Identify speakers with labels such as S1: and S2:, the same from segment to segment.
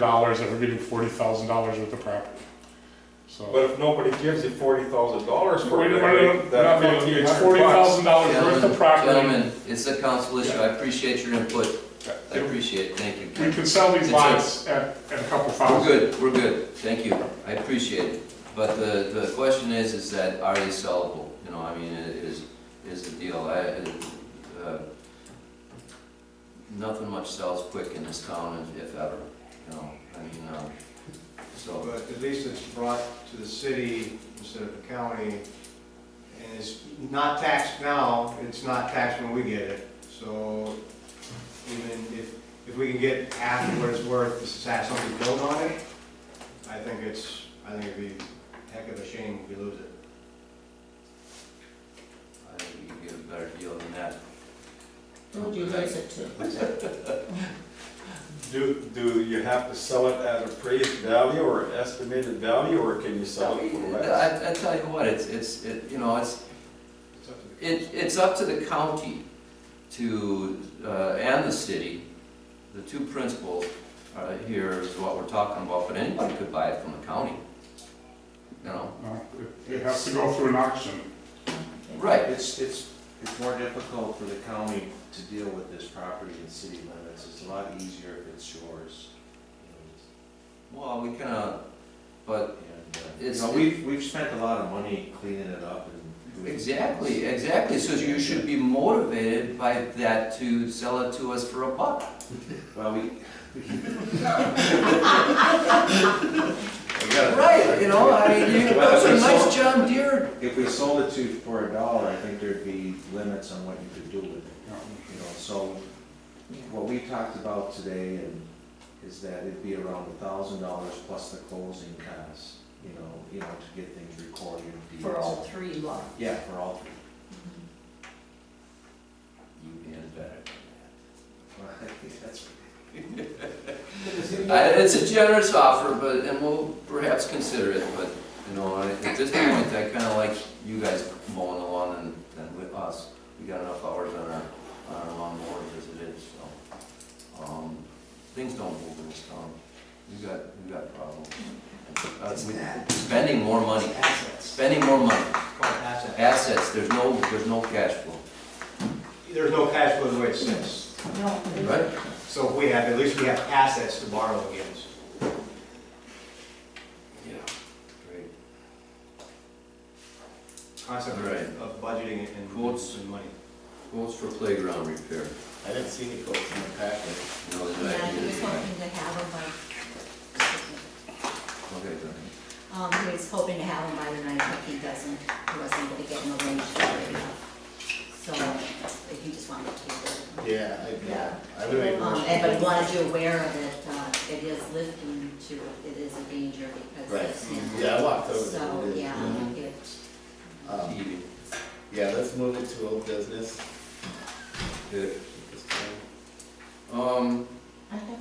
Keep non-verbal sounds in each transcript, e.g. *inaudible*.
S1: dollars that we're getting forty thousand dollars worth of property. So.
S2: But if nobody gives you forty thousand dollars
S1: We're-
S2: for
S1: we're-
S2: it,
S1: we're
S2: right,
S1: not- uh,
S2: that fifteen
S1: It's
S2: hundred
S1: forty
S2: bucks.
S1: thousand dollars worth of
S3: Gentlemen,
S1: property.
S3: Gentlemen, it's a council issue, I appreciate your input, I appreciate it, thank you.
S1: We can sell these
S3: It's a-
S1: lots at, at a couple
S3: We're
S1: thousand.
S3: good, we're good, thank you, I appreciate it. But the, the question is, is that are they sellable? You know, I mean, it is, is the deal, I, uh, nothing much sells quick in this town, if- if ever, you know, I mean, uh, so.
S4: But at least it's brought to the city instead of the county. And it's not taxed now, it's not taxed when we get it. So even if, if we can get half of what it's worth, this is have somebody built on it, I think it's, I think it'd be a heck of a shame if we lose it.
S3: I think we can get a better deal than that.
S5: Who'd you lose it to?
S2: Do, do you have to sell it at appraised value or estimated value, or can you sell it for less?
S3: I, I tell you what, it's, it's, it, you know, it's,
S4: It's up to the
S3: It, it's up to the county to, uh, and the city, the two principals uh, here is what we're talking about, but anybody could buy it from the county. You know,
S1: No, Uh, it- It has to go through an auction.
S3: right,
S6: It's, it's, it's more difficult for the county to deal with this property in city limits, it's a lot easier if it's yours.
S3: well, we kinda, but,
S6: And, uh, You
S3: It's-
S6: know, we've, we've spent a lot of money cleaning it up and. doing-
S3: exactly, exactly, so you should be motivated by that to sell it to us for a buck.
S6: Well,
S3: *laughs*
S6: we. We gotta-
S3: Right, you know, I mean, you,
S6: Well,
S3: those are
S6: if we sold-
S3: nice John Deere.
S6: If we sold it to, for a dollar, I think there'd be limits on what you could do with it. You know, so what we talked about today and is that it'd be around a thousand dollars plus the closing costs, you know, you know, to get things recorded. deeds.
S5: For all three lots.
S6: Yeah, for all three. *laughs*
S3: You can bet.
S6: Well, I think that's-
S3: I- Uh, It's a generous offer, but, and we'll perhaps consider it, but, you know, I- at this point, I kinda like you guys mowing the lawn and, and with us. We got enough hours on our, on our lawnmower as it is, so. Um, things don't move in this town. We got, we got problems. Uh, we- Spending more money,
S4: Assets.
S3: spending more money,
S4: It's called assets.
S3: assets, there's no, there's no cash flow.
S4: There's no cash flow the way it sits.
S5: No, they-
S4: So if we have, at least we have assets to borrow against.
S3: Yeah. Great.
S4: Concept of-
S3: Right.
S4: of budgeting and-
S3: Quotes.
S4: and money.
S3: Quotes for playground repair,
S7: I didn't see any quotes in the packet.
S3: you know, the
S5: Yeah,
S3: idea
S5: he was
S3: is-
S5: hoping to have them by,
S3: Okay, go ahead.
S5: um, he was hoping to have them by the ninth, but he doesn't, he wasn't able to get them arranged for it. So, if you just wanted to keep it.
S7: Yeah, I,
S5: Yeah.
S7: yeah, I would make a
S5: Um,
S7: motion.
S5: and but wanted you aware of it, uh, it is lifting to, it is a danger because.
S7: Right. Mhm.
S5: it's-
S7: Yeah, I walked over there.
S5: So, yeah,
S3: Mhm.
S5: it,
S7: Um,
S3: TV.
S7: Yeah, let's move it to old business.
S3: Good. Um,
S5: I have.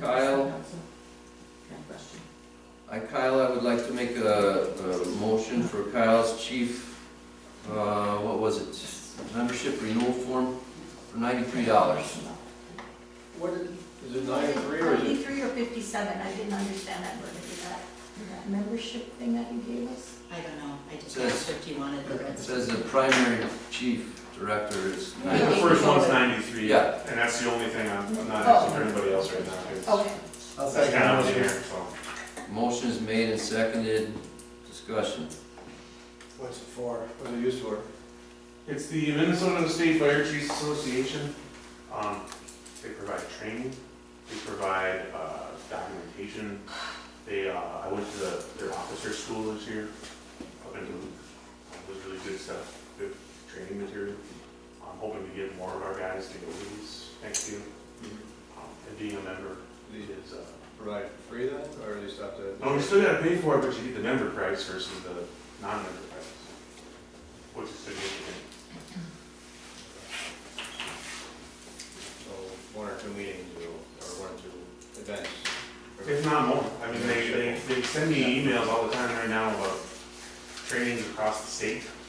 S3: Kyle?
S5: Kind of question.
S3: I, Kyle, I would like to make a, a motion for Kyle's chief, uh, what was it? Membership renewal form for ninety-three dollars.
S4: What is, is it
S8: Ninety-three or fifty-seven, I didn't understand that word, is that, is that membership thing that you gave us?
S5: I don't know, I just
S3: Says-
S5: asked if you wanted the
S3: It
S5: red.
S3: says the primary chief director is
S1: The
S3: ninety.
S1: first one's ninety-three,
S3: Yeah. Oh.
S1: and that's the only thing I'm, I'm not asking for anybody else right now.
S8: Okay.
S7: I'll
S1: That's
S7: second
S1: kind
S7: the
S1: of
S7: motion.
S1: here, so.
S3: Motion is made and seconded, discussion.
S4: What's it for? What's it used for?
S1: It's the Minnesota State Fire Chiefs Association. Um, they provide training, they provide, uh, documentation. They, uh, I went to the, their officer school this year, up in Duluth. It was really good stuff, good training material. I'm hoping to get more of our guys to go to these next year. Um, And being a member is, uh,
S4: Provide free then, or do you just have to?
S1: no, we still gotta pay for it, but you get the member price versus the non-member price, which is significant.
S4: So one or two meetings or, or one or two events.
S1: If not more, I mean, they, they, they send me emails all the time right now about trainings across the state, Um,